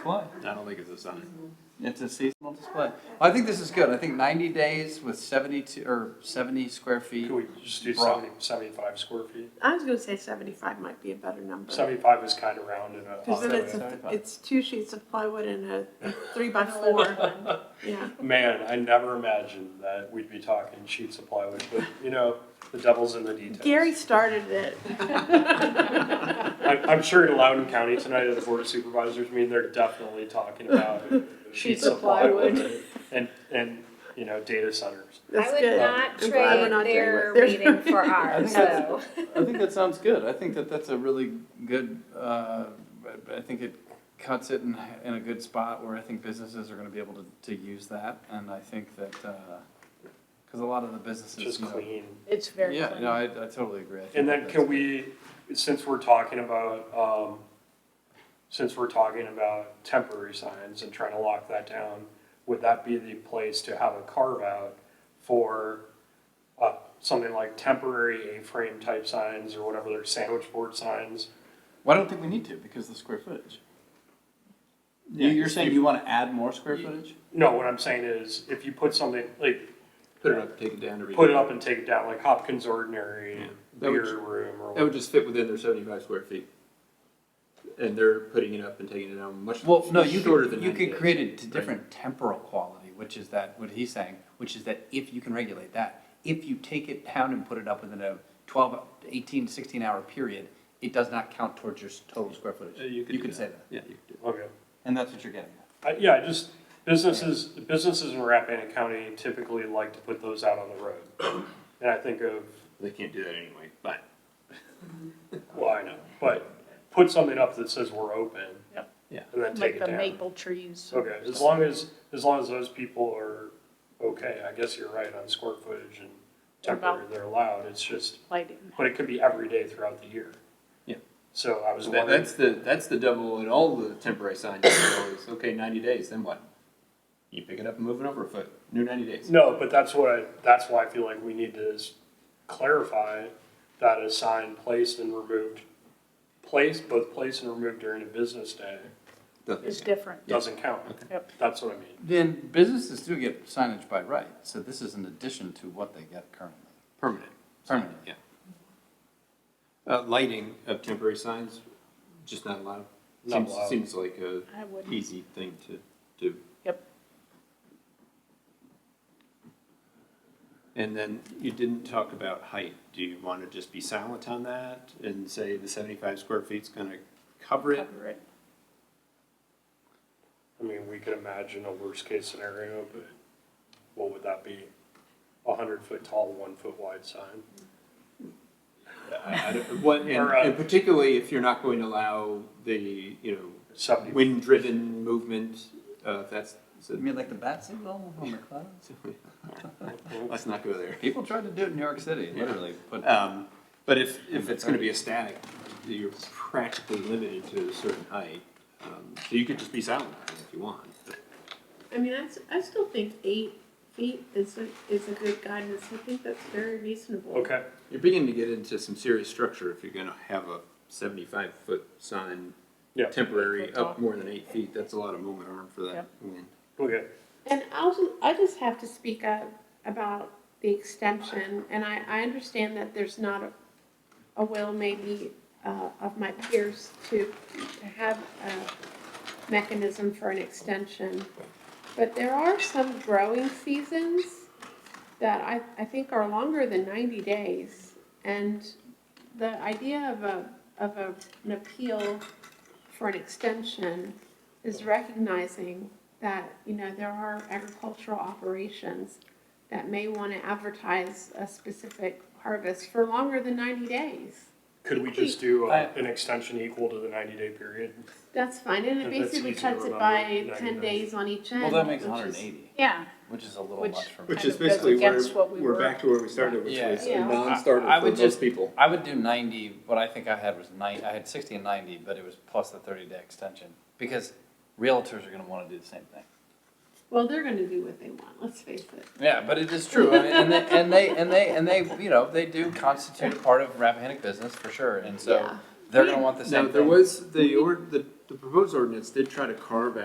What? I don't think it's a sign. It's a seasonal display. I think this is good. I think ninety days with seventy-two, or seventy square feet. Could we just do Bra. 70, 75 square feet? I was gonna say seventy-five might be a better number. Seventy-five is kind of rounded up. Cause then so it's, a- it's two sheets of plywood and a three by four, yeah. Man, I never imagined that we'd be talking sheets of plywood, but you know, the devil's in the details. Gary started it. I'm, I'm sure in Loudoun County tonight at the Board of Supervisors meeting, they're definitely talking about sheets of plywood and, and, you know, data centers. That's I would good. not I'm glad we're trade not doing their what they're meeting for doing. I think ours, that's- so. I think that sounds good. I think that that's a really good, uh, I I think it cuts it in, in a good spot where I think businesses are gonna be able to, to use that. And I think that, uh, cause a lot of the businesses. Just you know- clean. It's very Yeah, clean. no, I, I totally agree. I think And that then that's can good. we, since we're talking about, um, since we're talking about temporary signs and trying to lock that down, would that be the place to have a carve out for, uh, something like temporary A-frame type signs or whatever, they're sandwich board signs? Well, I don't think we need to because of the square footage. You, Yeah, you're saying you wanna add more square footage? No, what I'm saying is, if you put something, like, Put it up, take it down, to put it up and take it down, like Hopkins Ordinary That would Beer ju- Room or That would whatever. just fit within their seventy-five square feet. And they're putting it up and taking it down much Well, no, you shorter than could, you 90 could days. create a d- different temporal quality, which is that, what he's saying, which is that if you can regulate that, if you take it down and put it up within a 12, 18, 16 hour period, it does not count towards your s- total square footage. Uh, You could do say that, Yeah, you could do that. Okay. and that's what you're getting at. I yeah, I just, businesses, businesses in Rappahannock County typically like to put those out on the road. And I think of, They can't do that anyway, but. well, I know, but put something up that says we're open. Yep. Yeah. And then take Like it the down. maple trees. Okay, as long as, as long as those people are okay, I guess you're right on square footage and temporary, they're allowed, it's just, Lighting. but it could be every day throughout the year. Yeah. So I was So that, wondering, that's the, that's the double in all the temporary signs, you know, is, okay, ninety days, then what? You pick it up and move it over a foot, new ninety days. no, but that's what I, that's why I feel like we need to s- clarify that a sign placed and removed, placed, both placed and removed during a business day It's different. doesn't count. Yep. That's what I mean. Then businesses do get signage by right, so this is an addition to what they get currently, Permanent. permanent. Yeah. Uh, lighting of temporary signs, just not allowed. Not Seems, allowed. seems like a I wouldn't. easy thing to do. Yep. And then you didn't talk about height. Do you want to just be silent on that and say the seventy-five square feet's gonna cover it? cover it. I mean, we could imagine a worst case scenario, but what would that be? A hundred foot tall, one foot wide sign? I- I don't- What, and, Or, uh, and particularly if you're not going to allow the, you know, Seventy, wind-driven movement, uh, if that's, so- You mean like the bat signal on the clouds? let's not go there. People tried to do it in New York City, literally, put Uh, Um, but if, if it's gonna be a static, you're practically limited to a certain height. Um, so you could just be silent on it if you want. I mean, I, s- I still think eight feet is a, is a good guidance. I think that's very reasonable. okay, You're beginning to get into some serious structure if you're gonna have a seventy-five foot sign. Yeah. Temporary, Foot up tall. more than eight feet, that's a lot of moment arm for that Yep. wind. okay. And I'll just, I just have to speak up about the extension, and I, I understand that there's not a, a will maybe, uh, of my peers to, to have a mechanism for an extension. But there are some growing seasons that I, I think are longer than ninety days. And the idea of a, of a, an appeal for an extension is recognizing that, you know, there are agricultural operations that may want to advertise a specific harvest for longer than ninety days. Could we just do uh, I- an extension equal to the ninety day period? That's fine, and it That's basically easy to cuts it remember, by 90 ten days. days on each end. Well, that makes which is- hundred and eighty, Yeah, which is a little Which- much for me. Which is Kind of goes basically where- against what we we're were- back to where we started, which Yeah. was a Yeah. non-starter I- I for would most just- people. I would do ninety, what I think I had was nine, I had sixty and ninety, but it was plus the thirty day extension, because realtors are gonna wanna do the same thing. Well, they're gonna do what they want, let's face it. Yeah, but it is true, I mean, and they, and they, and they, and they, you know, they do constitute a part of Rappahannock business for sure, and so Yeah. they're gonna want the same Now, thing. there was the, or- the, the proposed ordinance did try to carve